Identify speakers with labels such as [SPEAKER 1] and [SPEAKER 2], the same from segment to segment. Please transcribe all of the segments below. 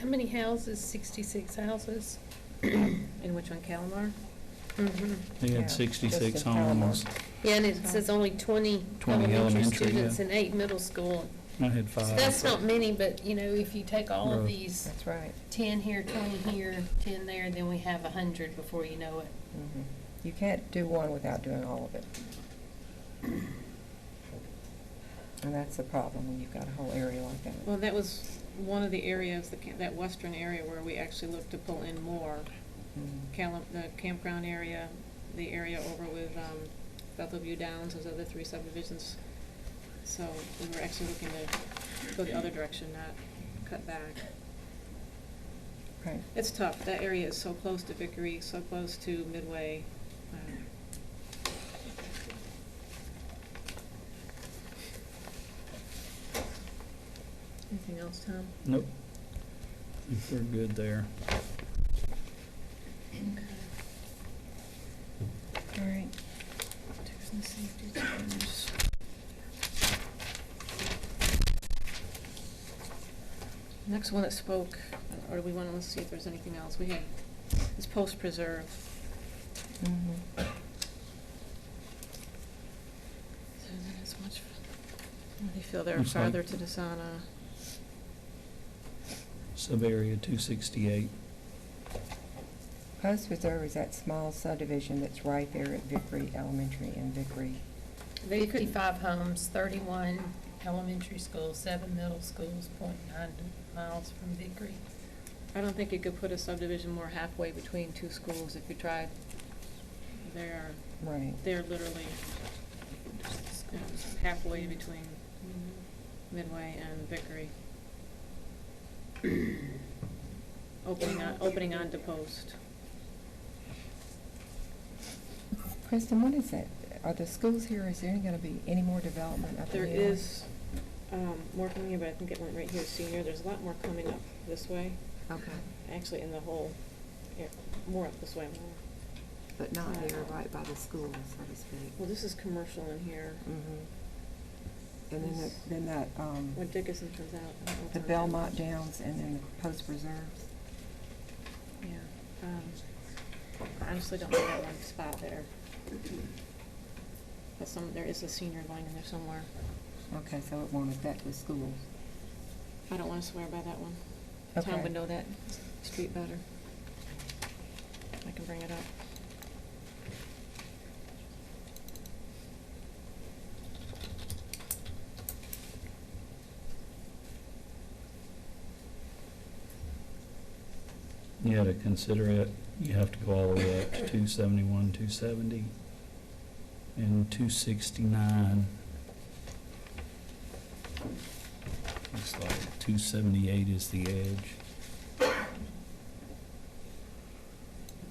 [SPEAKER 1] How many houses? Sixty-six houses?
[SPEAKER 2] And which one, Calamar?
[SPEAKER 1] Mhm.
[SPEAKER 3] They
[SPEAKER 4] Yeah,
[SPEAKER 3] had
[SPEAKER 4] just
[SPEAKER 3] 66
[SPEAKER 4] the town.
[SPEAKER 3] homes.
[SPEAKER 1] Yeah, and it says only twenty
[SPEAKER 3] 20
[SPEAKER 1] elementary
[SPEAKER 3] elementary, yeah.
[SPEAKER 1] students and eight middle school.
[SPEAKER 3] I had
[SPEAKER 1] So
[SPEAKER 3] five.
[SPEAKER 1] that's not many, but, you know, if you take all of
[SPEAKER 3] Right.
[SPEAKER 1] these,
[SPEAKER 4] That's right.
[SPEAKER 1] ten here, twenty here, ten there, then we have a hundred before you know it.
[SPEAKER 4] Mhm. You can't do one without doing all of it. And that's the problem when you've got a whole area like
[SPEAKER 2] Well,
[SPEAKER 4] that.
[SPEAKER 2] that was one of the areas, that ca- that western area where we actually looked to pull in more.
[SPEAKER 4] Mhm.
[SPEAKER 2] Calam, the campground area, the area over with um, Bethel View Downs, those other three subdivisions. So we were actually looking to go the other direction, not cut back.
[SPEAKER 4] Right.
[SPEAKER 2] It's tough. That area is so close to Vickery, so close to Midway. um, Anything else, Tom?
[SPEAKER 3] Nope. I think We're good there.
[SPEAKER 4] All right.
[SPEAKER 2] Next one that spoke, or do we want to see if there's anything else? We had, is Post Preserve.
[SPEAKER 4] Mhm.
[SPEAKER 2] So that is much, they feel they're
[SPEAKER 3] Looks like-
[SPEAKER 2] farther to Desana.
[SPEAKER 3] Sub-area 268.
[SPEAKER 4] Post Reserve is that small subdivision that's right there at Vickery Elementary and Vickery.
[SPEAKER 2] They could-
[SPEAKER 1] Fifty-five homes, thirty-one elementary schools, seven middle schools, point nine miles from Vickery.
[SPEAKER 2] I don't think you could put a subdivision more halfway between two schools if you tried. They are,
[SPEAKER 4] Right.
[SPEAKER 2] they're literally halfway between Midway and Vickery. Opening on, opening on to Post.
[SPEAKER 4] Kristen, what is that? Are the schools here, is there going to be any more development up in
[SPEAKER 2] There
[SPEAKER 4] the area?
[SPEAKER 2] is um, more coming here, but I think it went right here, senior. There's a lot more coming up this way,
[SPEAKER 5] Okay,
[SPEAKER 2] actually in the whole, yeah, more up this way, more.
[SPEAKER 5] but not here, right by the school, so to speak. Mm-hmm.
[SPEAKER 2] Well, this is commercial in here.
[SPEAKER 4] Mhm. And then that, then that, um,
[SPEAKER 2] When Dickinson comes out. I don't know what's
[SPEAKER 4] the
[SPEAKER 2] on that.
[SPEAKER 4] Belmont Downs and then the Post Reserves.
[SPEAKER 2] Yeah. um, I honestly don't know that one spot there. But some, there is a senior line in there somewhere.
[SPEAKER 4] Okay, so it won't affect the schools.
[SPEAKER 2] I don't want to swear by that one.
[SPEAKER 4] Okay.
[SPEAKER 2] Tom would know that street better. I can bring it up.
[SPEAKER 3] Yeah, to consider it, you have to go all the way up to 271, 270, and 269. Looks like 278 is the edge.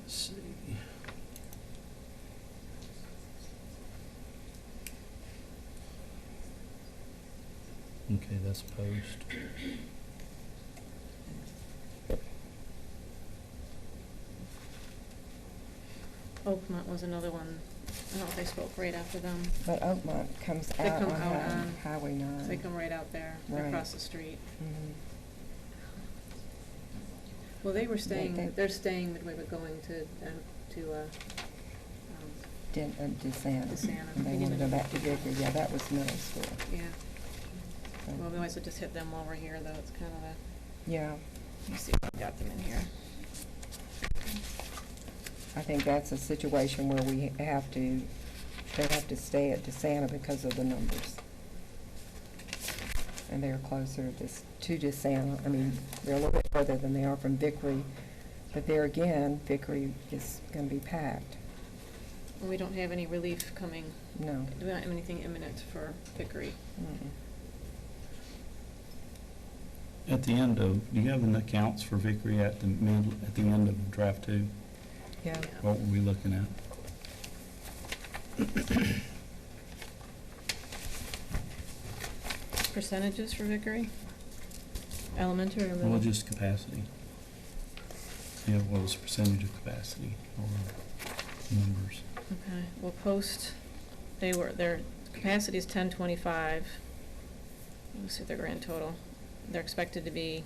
[SPEAKER 3] Let's see. Okay, that's post.
[SPEAKER 2] Oakmont was another one. I don't know if they spoke right after them.
[SPEAKER 4] But Oakmont comes
[SPEAKER 2] They
[SPEAKER 4] out
[SPEAKER 2] come
[SPEAKER 4] on
[SPEAKER 2] out on-
[SPEAKER 4] Hi- Highway 9.
[SPEAKER 2] They come right out there,
[SPEAKER 4] Right.
[SPEAKER 2] across the street.
[SPEAKER 4] Mhm.
[SPEAKER 2] Well, they were
[SPEAKER 4] They-
[SPEAKER 2] staying,
[SPEAKER 4] they-
[SPEAKER 2] they're staying midway, but going to, um, to, uh, um,
[SPEAKER 4] Den- uh, DeSana.
[SPEAKER 2] DeSana.
[SPEAKER 4] And They want to go back to Vickery, yeah, that was middle school.
[SPEAKER 2] yeah.
[SPEAKER 4] so-
[SPEAKER 2] Well, we always would just hit them while we're here, though. It's kind of a,
[SPEAKER 4] Yeah,
[SPEAKER 2] let me see if I've got them in here.
[SPEAKER 4] I think that's a situation where we have to, they have to stay at DeSana because of the numbers. And they're closer to s- to DeSana, I mean, they're a little bit further than they are from Vickery, but there again, Vickery is going to be packed.
[SPEAKER 2] And we don't have any relief coming.
[SPEAKER 4] No.
[SPEAKER 2] We don't have anything imminent for Vickery.
[SPEAKER 4] Mm-mm.
[SPEAKER 3] At the end of, do you have an accounts for Vickery at the mid, at the end of draft two?
[SPEAKER 4] Yeah,
[SPEAKER 3] What were we looking at?
[SPEAKER 2] Percentages for Vickery? Elementary or middle?
[SPEAKER 3] Well, just capacity. Yeah, what was the percentage of capacity or numbers?
[SPEAKER 2] Okay, well, post, they were, their capacity is ten twenty-five. Let me see their grand total. They're expected to be